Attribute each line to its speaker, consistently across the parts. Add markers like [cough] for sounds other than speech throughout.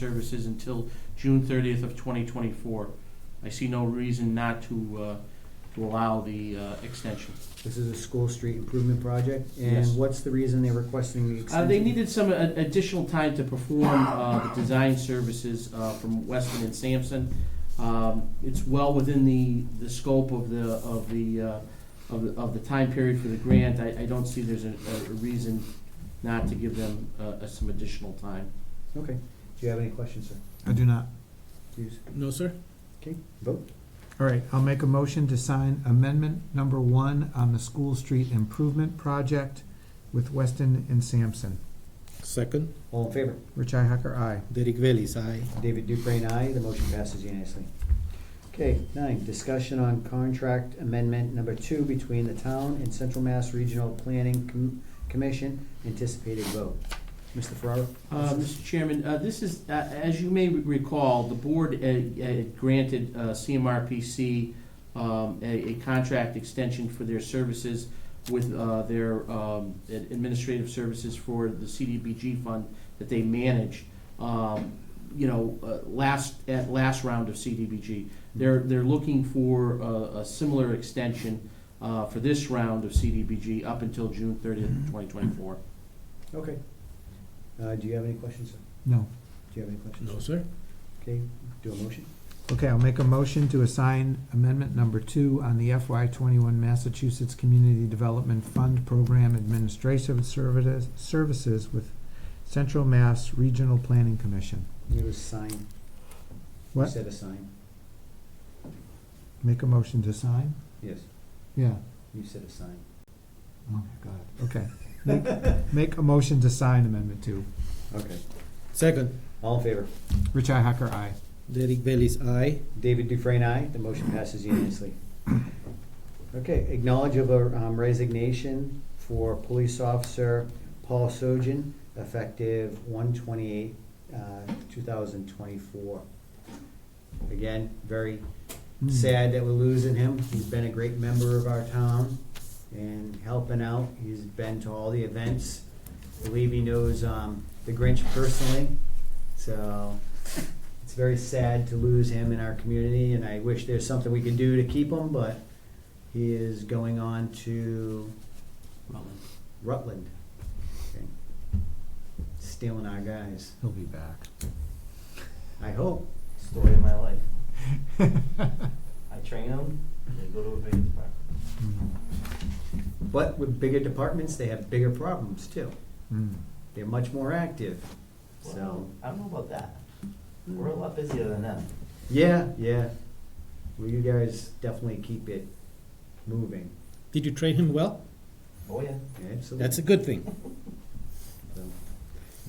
Speaker 1: services until June thirtieth of twenty twenty-four. I see no reason not to, uh, to allow the, uh, extension.
Speaker 2: This is a school street improvement project,
Speaker 1: Yes.
Speaker 2: and what's the reason they're requesting the
Speaker 1: Uh,
Speaker 2: extension?
Speaker 1: they needed some a- additional time to perform, uh, the design services, uh, from Weston and Sampson. Um, it's well within the, the scope of the, of the, uh, of the, of the time period for the grant. I, I don't see there's a, a reason not to give them, uh, some additional time.
Speaker 2: Okay, do you have any questions, sir?
Speaker 3: I do not.
Speaker 2: Please,
Speaker 4: No, sir.
Speaker 2: okay, vote.
Speaker 3: All right, I'll make a motion to sign amendment number one on the School Street Improvement Project with Weston and Sampson.
Speaker 4: Second,
Speaker 2: All in favor?
Speaker 3: Richi Hacker, aye.
Speaker 4: Derek Bailey's aye.
Speaker 2: David Dufresne, aye. The motion passes unanimously. Okay, nine, discussion on contract amendment number two between the town and Central Mass Regional Planning Com- Commission. Anticipated vote. Mr. Ferraro?
Speaker 1: Uh, Mr. Chairman, uh, this is, uh, as you may recall, the board uh, uh, granted uh, CMRPC um, a a contract extension for their services with uh, their um, ad- administrative services for the CDBG fund that they manage, um, you know, uh, last, at last round of CDBG. They're, they're looking for a a similar extension uh, for this round of CDBG up until June 30th, 2024.
Speaker 2: Okay. Uh, do you have any questions, sir?
Speaker 3: No.
Speaker 2: Do you have any questions?
Speaker 4: No, sir.
Speaker 2: Okay, do a motion.
Speaker 3: Okay, I'll make a motion to assign amendment number two on the FY twenty-one Massachusetts Community Development Fund Program Administrative Services, Services with Central Mass Regional Planning Commission.
Speaker 2: It was signed. You
Speaker 3: What?
Speaker 2: said a sign.
Speaker 3: Make a motion to sign?
Speaker 2: Yes,
Speaker 3: Yeah.
Speaker 2: you said a sign.
Speaker 3: Oh, my God. Okay. Make, make a motion to sign amendment two.
Speaker 2: Okay.
Speaker 4: Second,
Speaker 2: All in favor?
Speaker 3: Richi Hacker, aye.
Speaker 4: Derek Bailey's aye.
Speaker 2: David Dufresne, aye. The motion passes unanimously. Okay, acknowledge of a um, resignation for police officer Paul Sojan, effective one twenty-eight, uh, two thousand twenty-four. Again, very
Speaker 3: Mm.
Speaker 2: sad that we're losing him. He's been a great member of our town and helping out. He's been to all the events. I believe he knows um, the Grinch personally. So it's very sad to lose him in our community, and I wish there's something we could do to keep him, but he is going on to
Speaker 1: Rutland.
Speaker 2: Rutland. Okay. Stealing our guys.
Speaker 3: He'll be back.
Speaker 2: I hope.
Speaker 5: story of my life. [laughs] I train them, they go to a big department.
Speaker 3: Mm.
Speaker 2: But with bigger departments, they have bigger problems too.
Speaker 3: Mm.
Speaker 2: They're much more active. So.
Speaker 5: Well, I don't know about that. We're a lot busier than them.
Speaker 2: Yeah, yeah. Well, you guys definitely keep it moving.
Speaker 4: Did you train him well?
Speaker 5: Oh, yeah.
Speaker 2: Absolutely.
Speaker 4: That's a good thing.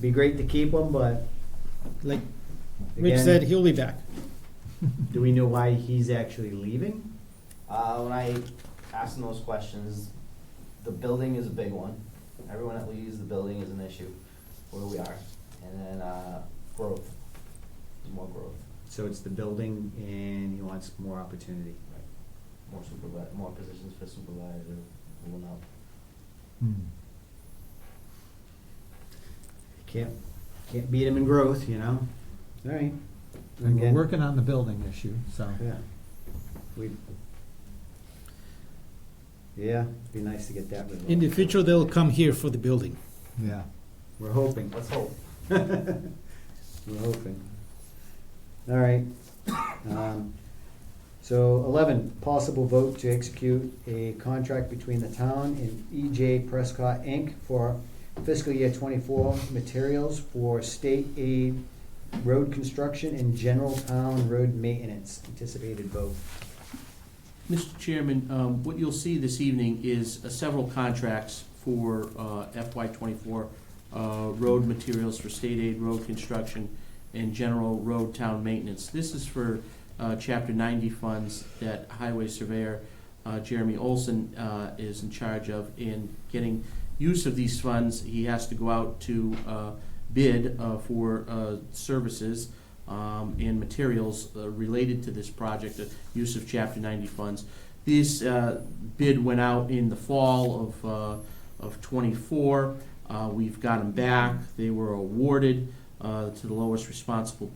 Speaker 2: Be great to keep them, but
Speaker 4: Like Rich
Speaker 2: again,
Speaker 4: said, he'll be back.
Speaker 2: do we know why he's actually leaving?
Speaker 5: Uh, when I ask them those questions, the building is a big one. Everyone that leaves the building is an issue where we are. And then, uh, growth, more growth,
Speaker 2: So it's the building, and he wants more opportunity.
Speaker 5: more supervisor, more positions for supervisor, will not.
Speaker 3: Mm.
Speaker 2: Can't can't beat him in growth, you know. All right.
Speaker 3: And we're
Speaker 2: Again.
Speaker 3: working on the building issue, so.
Speaker 2: Yeah. We. Yeah, be nice to get that resolved.
Speaker 4: In the future, they'll come here for the building.
Speaker 3: Yeah.
Speaker 2: We're hoping.
Speaker 5: Let's hope.
Speaker 2: [laughs] We're hoping. All right. Um, So eleven, possible vote to execute a contract between the town and EJ Prescott Inc. for fiscal year twenty-four materials for state aid road construction and general town road maintenance. Anticipated vote.
Speaker 1: Mr. Chairman, um, what you'll see this evening is uh, several contracts for FY twenty-four uh, road materials for state aid road construction and general road town maintenance. This is for uh, Chapter ninety funds that Highway Surveyor uh, Jeremy Olson uh, is in charge of in getting use of these funds. He has to go out to uh, bid uh, for uh, services um, and materials uh, related to this project, the use of Chapter 90 funds. This uh, bid went out in the fall of, uh, of '24. We've got them back. They were awarded. Uh, uh, to the lowest responsible